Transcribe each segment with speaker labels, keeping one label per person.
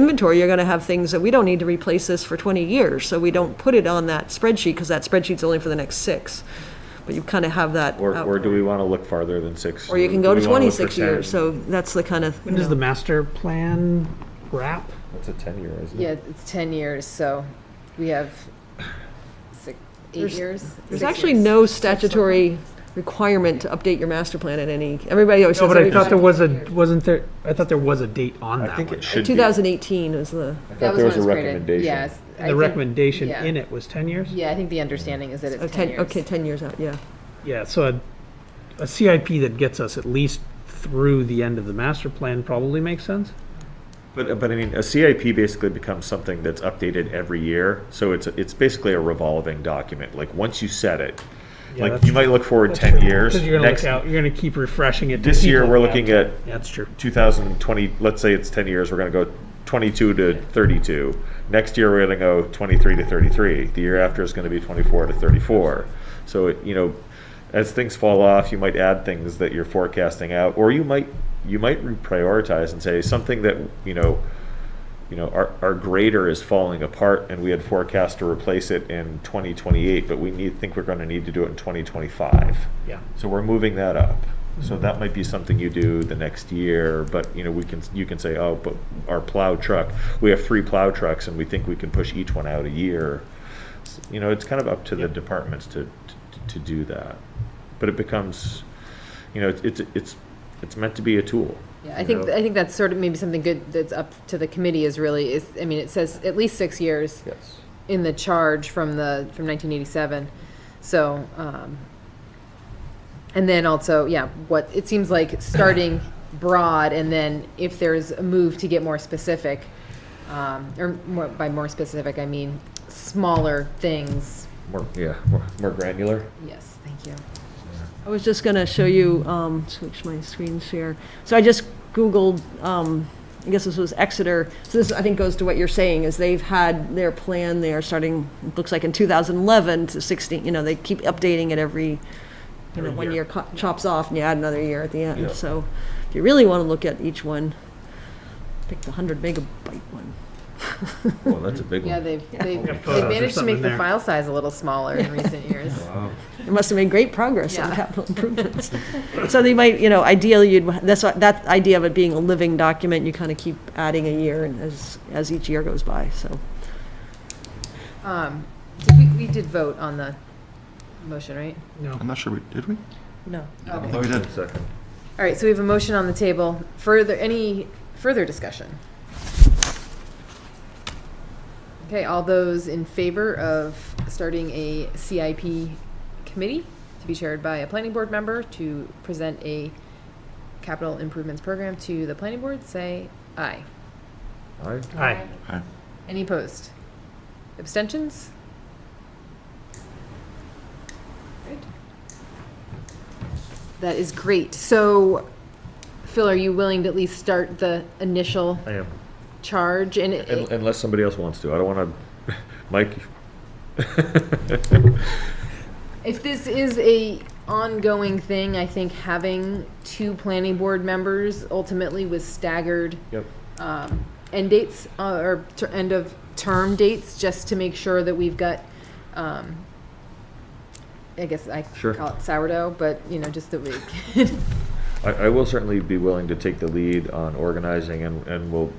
Speaker 1: inventory, you're going to have things that we don't need to replace this for 20 years, so we don't put it on that spreadsheet, because that spreadsheet's only for the next six. But you kind of have that.
Speaker 2: Or,
Speaker 1: out-
Speaker 2: or do we want to look farther than six?
Speaker 1: Or you can
Speaker 2: Do
Speaker 1: go
Speaker 2: we
Speaker 1: to
Speaker 2: wanna look for
Speaker 1: 26 years,
Speaker 2: 10?
Speaker 1: so that's the kind of, you
Speaker 3: When does
Speaker 1: know.
Speaker 3: the master plan wrap?
Speaker 2: That's a ten-year, isn't it?
Speaker 4: Yeah, it's 10 years, so we have six, eight
Speaker 1: There's-
Speaker 4: years?
Speaker 1: There's
Speaker 4: Six
Speaker 1: actually
Speaker 4: years.
Speaker 1: no statutory requirement to update your master plan at any, everybody always
Speaker 3: No,
Speaker 1: says
Speaker 3: but I
Speaker 1: every
Speaker 3: thought there was a, wasn't there, I thought there was a date on
Speaker 2: I
Speaker 3: that
Speaker 2: think
Speaker 3: one.
Speaker 2: it should be. I
Speaker 1: 2018 is the,
Speaker 2: thought
Speaker 4: That
Speaker 2: there was a
Speaker 4: when it created.
Speaker 2: recommendation.
Speaker 4: Yes. I
Speaker 3: And the
Speaker 4: think-
Speaker 3: recommendation
Speaker 4: yeah.
Speaker 3: in it was ten years?
Speaker 4: Yeah, I think the understanding is that
Speaker 1: oh,
Speaker 4: it's
Speaker 1: 10,
Speaker 4: 10 years.
Speaker 1: okay, 10 years out, yeah.
Speaker 3: Yeah, so a, a CIP that gets us at least through the end of the master plan probably makes sense?
Speaker 2: But, but I mean, a CIP basically becomes something that's updated every year, so it's, it's basically a revolving document, like, once you set it,
Speaker 3: Yeah,
Speaker 2: like,
Speaker 3: that's
Speaker 2: you might look forward ten
Speaker 3: Because
Speaker 2: years,
Speaker 3: you're gonna look
Speaker 2: next,
Speaker 3: out, you're gonna keep refreshing it. to
Speaker 2: this
Speaker 3: keep
Speaker 2: year,
Speaker 3: it
Speaker 2: we're
Speaker 3: up.
Speaker 2: looking at
Speaker 3: That's true.
Speaker 2: two thousand and twenty, let's say it's ten years, we're gonna go twenty-two to thirty-two. Next year, we're gonna go twenty-three to thirty-three, the year after is gonna be twenty-four to thirty-four. So, it you know, as things fall off, you might add things that you're forecasting out, or you might, you might reprioritize and say, something that, you know, you know, our, our grader is falling apart and we had forecast to replace it in twenty twenty-eight, but we need, think we're gonna need to do it in twenty twenty-five.
Speaker 3: Yeah.
Speaker 2: So we're moving that up. So that might be something you do the next year, but, you know, we can, you can say, oh, but our plow truck, we have three plow trucks and we think we can push each one out a year. S- You know, it's kind of up to the departments to, to, to do that. But it becomes, you know, it's, it's, it's meant to be a tool.
Speaker 4: Yeah, I think, I think that's sort of maybe something good that's up to the committee is really, is, I mean, it says at least six years
Speaker 2: Yes.
Speaker 4: in the charge from the, from 1987, so, um, and then also, yeah, what, it seems like starting broad, and then if there's a move to get more specific, um, or more, by more specific, I mean smaller things,
Speaker 2: More, yeah, more, more granular.
Speaker 4: yes, thank you.
Speaker 1: I was just going to show you, um, switch my screen share. So I just Googled, um, I guess this was Exeter. So this, I think, goes to what you're saying, is they've had their plan there starting, it looks like in 2011 to 16, you know, they keep updating it every, you know,
Speaker 3: Every
Speaker 1: one
Speaker 3: year.
Speaker 1: year co- chops off and you add another year at the
Speaker 2: Yeah.
Speaker 1: end. So if you really want to look at each one, pick the 100 megabyte one.
Speaker 2: Well, that's a big
Speaker 4: Yeah, they've, they've
Speaker 3: Yeah,
Speaker 4: they've
Speaker 3: photos or
Speaker 4: managed to make
Speaker 3: something
Speaker 4: the
Speaker 3: there.
Speaker 4: file size a little smaller in recent years.
Speaker 1: It must have made great progress on
Speaker 4: Yeah.
Speaker 1: capital improvements. So they might, you know, ideally, you'd, that's, what- that idea of it being a living document, you kind of keep adding a year and as, as each year goes by, so.
Speaker 4: Um, did we, we did vote on the motion, right?
Speaker 3: No.
Speaker 5: I'm not sure we did we?
Speaker 1: No.
Speaker 5: I thought we did.
Speaker 2: Second.
Speaker 4: All right, so we have a motion on the table. Further, any further discussion? Okay, all those in favor of starting a CIP committee to be chaired by a planning board member to present a capital improvements program to the planning board, say aye.
Speaker 2: Aye.
Speaker 3: Aye.
Speaker 5: Aye.
Speaker 4: Any opposed? Abstentions? Great. That is great. So, Phil, are you willing to at least start the initial
Speaker 2: I am.
Speaker 4: charge? And it-
Speaker 2: Un- Unless somebody else wants to. I don't want to, Mike.
Speaker 4: if this is a ongoing thing, I think having two planning board members ultimately with staggered
Speaker 2: Yep.
Speaker 4: um, end dates uh, or ter- end of term dates, just to make sure that we've got, um, I guess I
Speaker 2: Sure.
Speaker 4: call it sourdough, but you know, just that we.
Speaker 2: I, I will certainly be willing to take the lead on organizing and, and will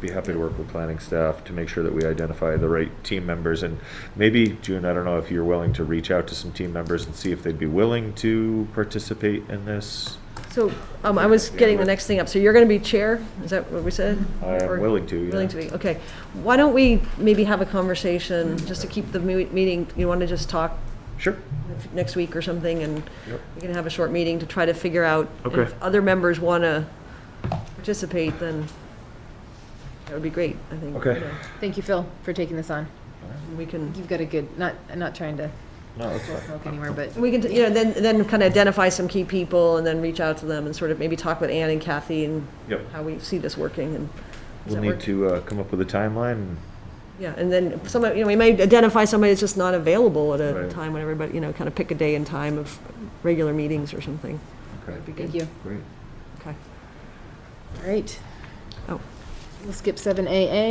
Speaker 2: be happy to work with planning staff to make sure that we identify the right team members. And maybe, June, I don't know if you're willing to reach out to some team members and see if they'd be willing to participate in this.
Speaker 1: So, um, I was getting the next thing up, so you're gonna be chair, is that what we said?
Speaker 2: I
Speaker 1: Or-
Speaker 2: am willing to, yeah.
Speaker 1: Willing to be, okay. Why don't we maybe have a conversation, just to keep the me- meeting, you wanna just talk
Speaker 2: Sure.
Speaker 1: next week or something, and
Speaker 2: Yep.
Speaker 1: we can have a short meeting to try to figure out. and
Speaker 2: Okay.
Speaker 1: If other members wanna participate, then that would be great, I think.
Speaker 2: Okay.
Speaker 1: you know.
Speaker 4: Thank you, Phil, for taking this on.
Speaker 1: We can,
Speaker 4: You've got a good. Not I'm not trying to
Speaker 2: No, that's
Speaker 4: blow
Speaker 2: fine.
Speaker 4: smoke anywhere, but
Speaker 1: we can, you know, then, then kind of identify some key people and then reach out to them and sort of maybe talk with Ann and Kathy and
Speaker 2: Yep.
Speaker 1: how we see this working and. does
Speaker 2: We'll
Speaker 1: that
Speaker 2: need
Speaker 1: work?
Speaker 2: to uh, come up with a timeline.
Speaker 1: Yeah, and then some, you know, we may identify somebody that's just not available at a
Speaker 2: Right.
Speaker 1: time when everybody, you know, kind of pick a day and time of regular meetings or something.
Speaker 2: Okay,
Speaker 1: That'd be good.
Speaker 4: thank you.
Speaker 2: great.
Speaker 1: Okay.
Speaker 4: All right.
Speaker 1: Oh.
Speaker 4: We'll skip seven AA